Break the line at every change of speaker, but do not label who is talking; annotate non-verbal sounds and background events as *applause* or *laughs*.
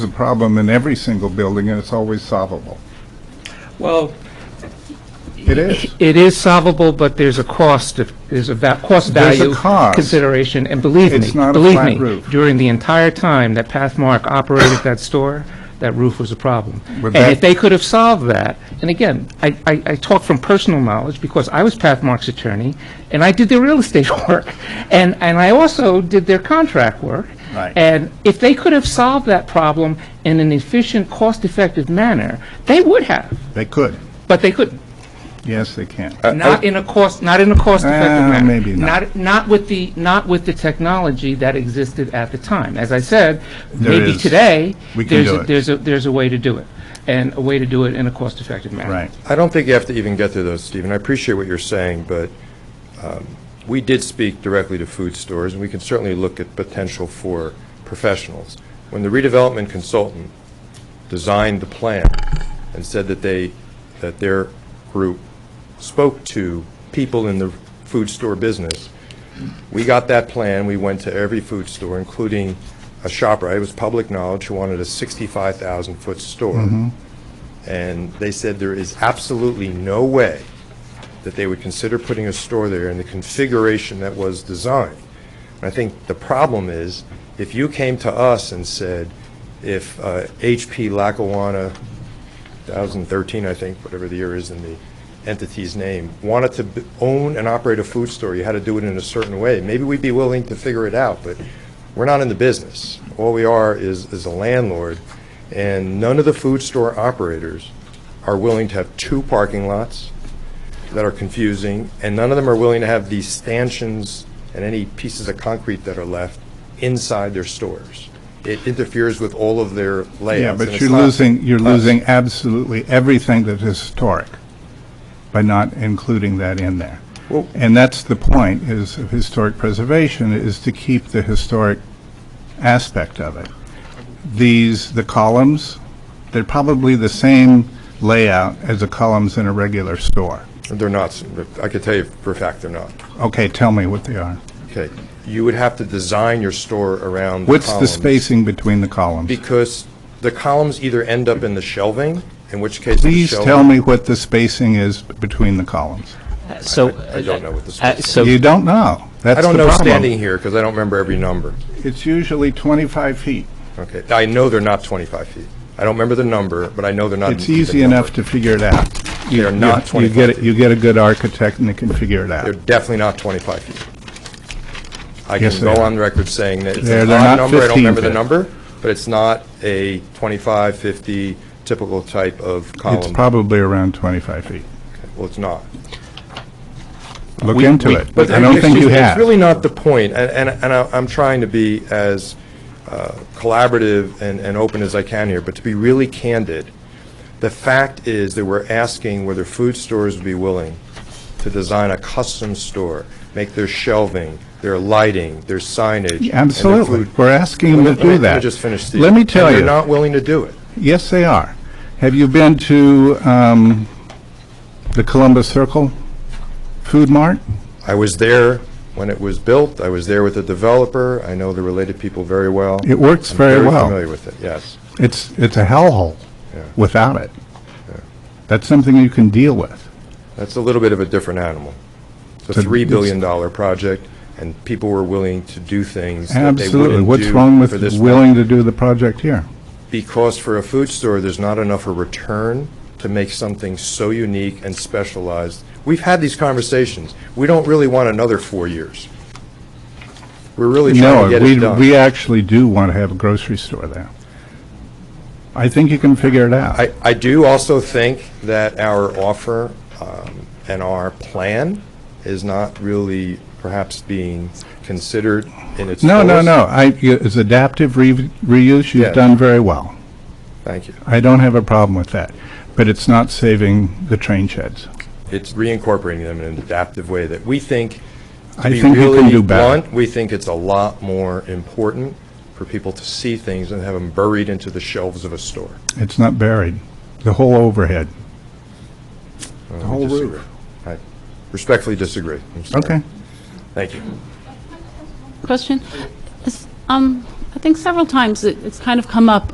a problem in every single building, and it's always solvable.
Well,
It is.
It is solvable, but there's a cost, of- there's a va- cost
There's a
value
cost.
consideration, and believe me,
It's not a
believe
flat
me,
roof.
during the entire time that Pathmark operated that store, that roof was a problem.
But
And if
that-
they could have solved that, and again, I, I I talk from personal knowledge, because I was Pathmark's attorney, and I did their real estate *laughs* work, and, and I also did their contract work.
Right.
And if they could have solved that problem in an efficient, cost-effective manner, they would have,
They could.
but they couldn't.
Yes, they can.
Uh,
Not in a cost, not in a cost-effective
Ah,
manner.
maybe not.
Not with the, not with the technology that existed at the time. As I said,
There
maybe
is.
today,
We can
there's
do
a-
it.
there's a, there's a way to do it, and a way to do it in a cost-effective manner.
Right.
I don't think you have to even get to those, Stephen. I appreciate what you're saying, but um, we did speak directly to food stores, and we can certainly look at potential for professionals. When the redevelopment consultant designed the plan and said that they, that their group spoke to people in the food store business, we got that plan, we went to every food store, including a ShopRite, it was public knowledge, who wanted a 65,000-foot store. And they said there is absolutely no way that they would consider putting a store there in the configuration that was designed. And I think the problem is, if you came to us and said, if uh, HP Lackawanna 2013, I think, whatever the year is in the entity's name, wanted to b- own and operate a food store, you had to do it in a certain way. Maybe we'd be willing to figure it out, but we're not in the business. All we are is, is a landlord, and none of the food store operators are willing to have two parking lots that are confusing, and none of them are willing to have these stanchions and any pieces of concrete that are left inside their stores. It interferes with all of their layouts.
Yeah,
and
but
it's
you're
not
losing, you're
us.
losing absolutely everything that is historic by not including that in there.
Well-
And that's the point, is of historic preservation, is to keep the historic aspect of it. These, the columns, they're probably the same layout as the columns in a regular store.
They're not, I could tell you for a fact they're not.
Okay, tell me what they are.
Okay, you would have to design your store around the
What's the
columns.
spacing between the columns?
Because the columns either end up in the shelving, in which case the
Please
shelving...
tell me what the spacing is between the columns.
So.
I- I don't know what the
uh,
space
So,
You don't know. That's
I
the
don't know
problem.
standing here, because I don't remember every number.
It's usually 25 feet.
Okay, I know they're not 25 feet. I don't remember the number, but I know they're not...
It's
the
easy
number.
enough to figure it out.
They are not
You- you get
25
it-
feet.
You get a good architect and they can figure it
They're
out.
definitely not 25 feet. I
Yes,
can
they
go
are.
on record saying that it's
They're-
an
they're
odd
not
number, I don't
15
remember the
feet.
number, but it's not a 25, 50 typical type of
It's
column.
probably around 25 feet.
Well, it's not.
Look
We-
into
we-
it.
But
I don't think you
it's-
have.
It's really not the point, and, and and I- I'm trying to be as uh, collaborative and, and open as I can here, but to be really candid, the fact is that we're asking whether food stores would be willing to design a custom store, make their shelving, their lighting, their signage. and their
Absolutely.
food-
We're asking them to
Let me-
do that.
Let me just finish, Steve.
Let me tell
And
you.
they're not willing to do it.
Yes, they are. Have you been to um, the Columbus Circle Food Mart?
I was there when it was built, I was there with the developer, I know the related people very well.
It works
I'm
very well.
Very familiar with it, yes.
It's, it's a hellhole
Yeah.
without it. That's something you can deal with.
That's a little bit of a different animal. It's a
But
$3
it's-
billion dollar project, and people were willing to do things that they
Absolutely.
wouldn't
What's
do
wrong with
for this
willing
one.
to do the project here?
Because for a food store, there's not enough a return to make something so unique and specialized. We've had these conversations. We don't really want another four years. We're really trying
No,
to get
we,
it done.
we actually do want to have a grocery store there. I think you can figure it out.
I, I do also think that our offer um, and our plan is not really perhaps being considered in its fullest.
No, no, no, I, you- it's adaptive re- reuse, you've
Yes.
done very well.
Thank you.
I don't have a problem with that, but it's not saving the train sheds.
It's reincorporating them in an adaptive way that we think, to
I
be
think you can
really
do better.
blunt, we think it's a lot more important for people to see things and have them buried into the shelves of a store.
It's not buried, the whole overhead.
The
whole roof.
I respectfully disagree. I'm sorry.
Okay,
Thank you.
question. Is, Um, I think several times it- it's kind of come up